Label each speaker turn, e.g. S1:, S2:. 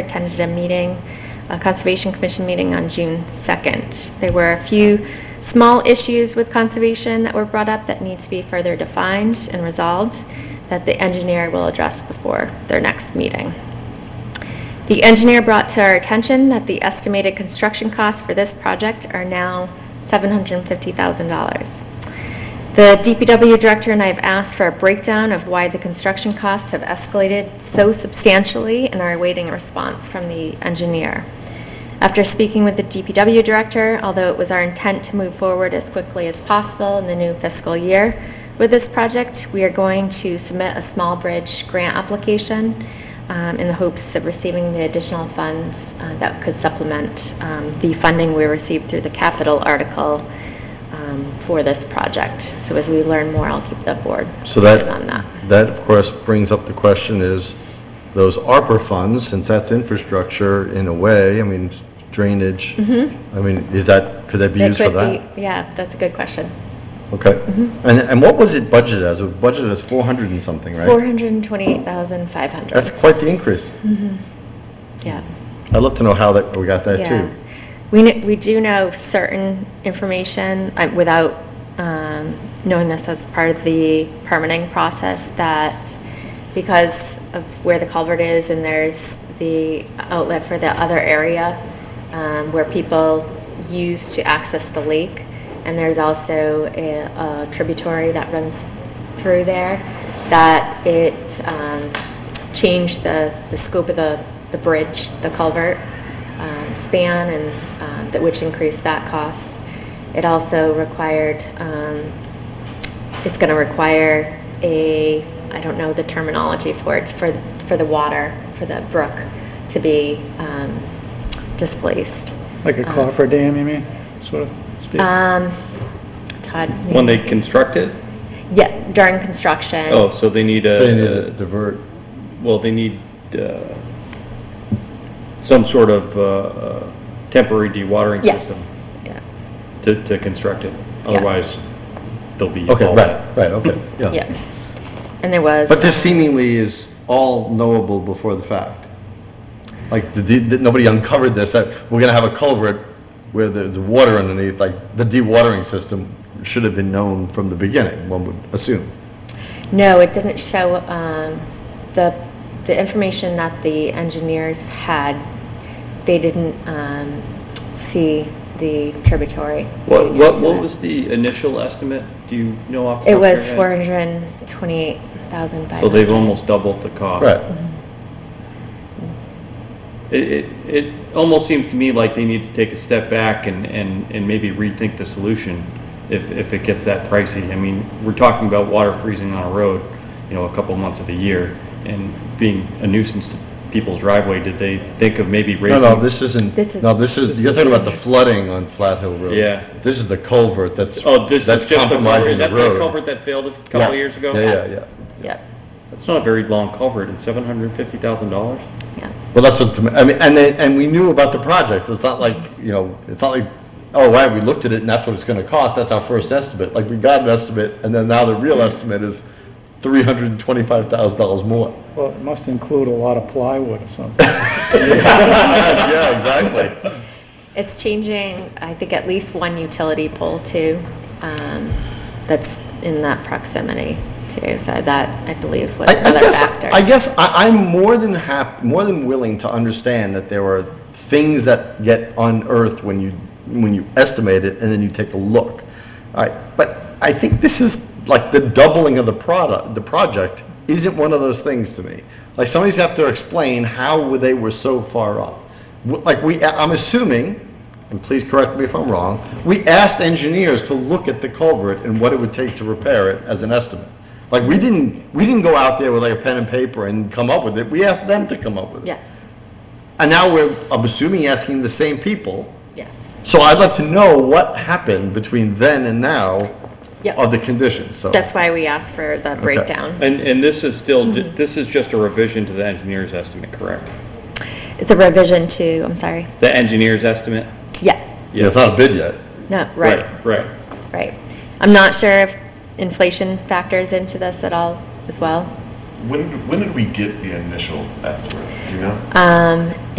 S1: attended a meeting, a Conservation Commission meeting on June 2nd. There were a few small issues with conservation that were brought up that need to be further defined and resolved that the engineer will address before their next meeting. The engineer brought to our attention that the estimated construction costs for this project are now $750,000. The DPW director and I have asked for a breakdown of why the construction costs have escalated so substantially and are awaiting a response from the engineer. After speaking with the DPW director, although it was our intent to move forward as quickly as possible in the new fiscal year with this project, we are going to submit a small bridge grant application um, in the hopes of receiving the additional funds uh, that could supplement um, the funding we received through the capital article um, for this project. So as we learn more, I'll keep the board
S2: So
S1: updated on that.
S2: that, that of course brings up the question is, those ARPA funds, since that's infrastructure in a way, I mean, drainage, I mean, is that, could that
S1: Mm-hmm.
S2: be
S1: That
S2: used for
S1: could Mm-hmm.
S2: that?
S1: be- Yeah, that's a good question.
S2: Okay. And, and what was it budgeted as? It was budgeted as 400 and something, right?
S1: 428,500.
S2: That's quite the increase.
S1: Mm-hmm. Yeah.
S2: I'd love to know how that, we got that
S1: Yeah,
S2: too.
S1: We, kn- we do know certain information, uh, without um, knowing this as part of the permitting process, that because of where the culvert is and there's the outlet for the other area um, where people use to access the lake, and there's also a a tributary that runs through there, that it um, changed the, the scope of the, the bridge, the culvert um, span and, um, that- which increased that cost. It also required, um, it's going to require a, I don't know the terminology for it, for, for the water, for the brook to be um, displaced.
S3: Like a coffer dam, you mean, sort of speak?
S1: Uh, Um, Todd?
S4: When they construct it?
S1: Yeah, during construction.
S4: Oh, so they need
S2: They need to
S4: a,
S2: divert.
S4: well, they need uh, some sort of uh, uh, temporary dewatering system
S1: Yes, yeah,
S4: to, to construct it. Otherwise, they'll be
S2: Okay,
S4: all
S2: right,
S4: that.
S2: right, okay, yeah.
S1: yeah. And there was.
S2: But this seemingly is all knowable before the fact. Like, the de- that nobody uncovered this, that we're gonna have a culvert where there's water underneath, like, the dewatering system should have been known from the beginning, one would assume.
S1: No, it didn't show, um, the, the information that the engineers had, they didn't um, see the tributary.
S4: What,
S1: leading
S4: what,
S1: into
S4: what
S1: it.
S4: was the initial estimate? Do you know off the
S1: It
S4: top of your
S1: was
S4: head?
S1: 428,500.
S4: So they've almost doubled the cost.
S2: Right,
S4: It, it, it almost seems to me like they need to take a step back and, and, and maybe rethink the solution if, if it gets that pricey. I mean, we're talking about water freezing on a road, you know, a couple months of the year and being a nuisance to people's driveway. Did they think of maybe
S2: no,
S4: raising?
S2: no, this isn't,
S1: This is-
S2: no, this is, you're talking about the flooding on Flat Hill Road.
S4: Yeah.
S2: This is the culvert that's,
S4: Oh, this
S2: that's
S4: is just the culvert,
S2: compromising
S4: is
S2: the
S4: that the
S2: road.
S4: culvert that failed a couple of years ago?
S2: Yeah, yeah, yeah.
S1: Yep,
S4: It's not a very long culvert, and seven hundred and fifty thousand dollars?
S1: yep.
S2: Well, that's what, I mean, and they, and we knew about the projects, it's not like, you know, it's not like, oh, right, we looked at it and that's what it's gonna cost, that's our first estimate, like, we got an estimate, and then now the real estimate is three hundred and twenty-five thousand dollars more.
S3: Well, it must include a lot of plywood or something.
S2: Yeah, exactly.
S1: It's changing, I think, at least one utility pole too, um, that's in that proximity too. So that, I believe, was
S2: I, I
S1: another
S2: guess,
S1: factor.
S2: I guess, I, I'm more than hap, more than willing to understand that there are things that get unearthed when you, when you estimate it, and then you take a look. All right, but I think this is, like, the doubling of the product, the project, isn't one of those things to me. Like, somebody's have to explain how they were so far off. W- Like, we, I'm assuming, and please correct me if I'm wrong, we asked engineers to look at the culvert and what it would take to repair it as an estimate. Like, we didn't, we didn't go out there with like a pen and paper and come up with it, we asked them to come up with it.
S1: Yes,
S2: And now we're, I'm assuming, asking the same people.
S1: yes.
S2: So I'd like to know what happened between then and now
S1: Yep.
S2: of the conditions, so.
S1: That's why we asked for the breakdown.
S4: And, and this is still, ju- this is just a revision to the engineer's estimate, correct?
S1: It's a revision to, I'm sorry,
S4: The engineer's estimate?
S1: yes,
S2: Yeah, it's not a bid yet.
S1: no, right,
S4: Right.
S1: right. I'm not sure if inflation factors into this at all as well. Um,
S5: When, when did we get the initial estimate, do you know?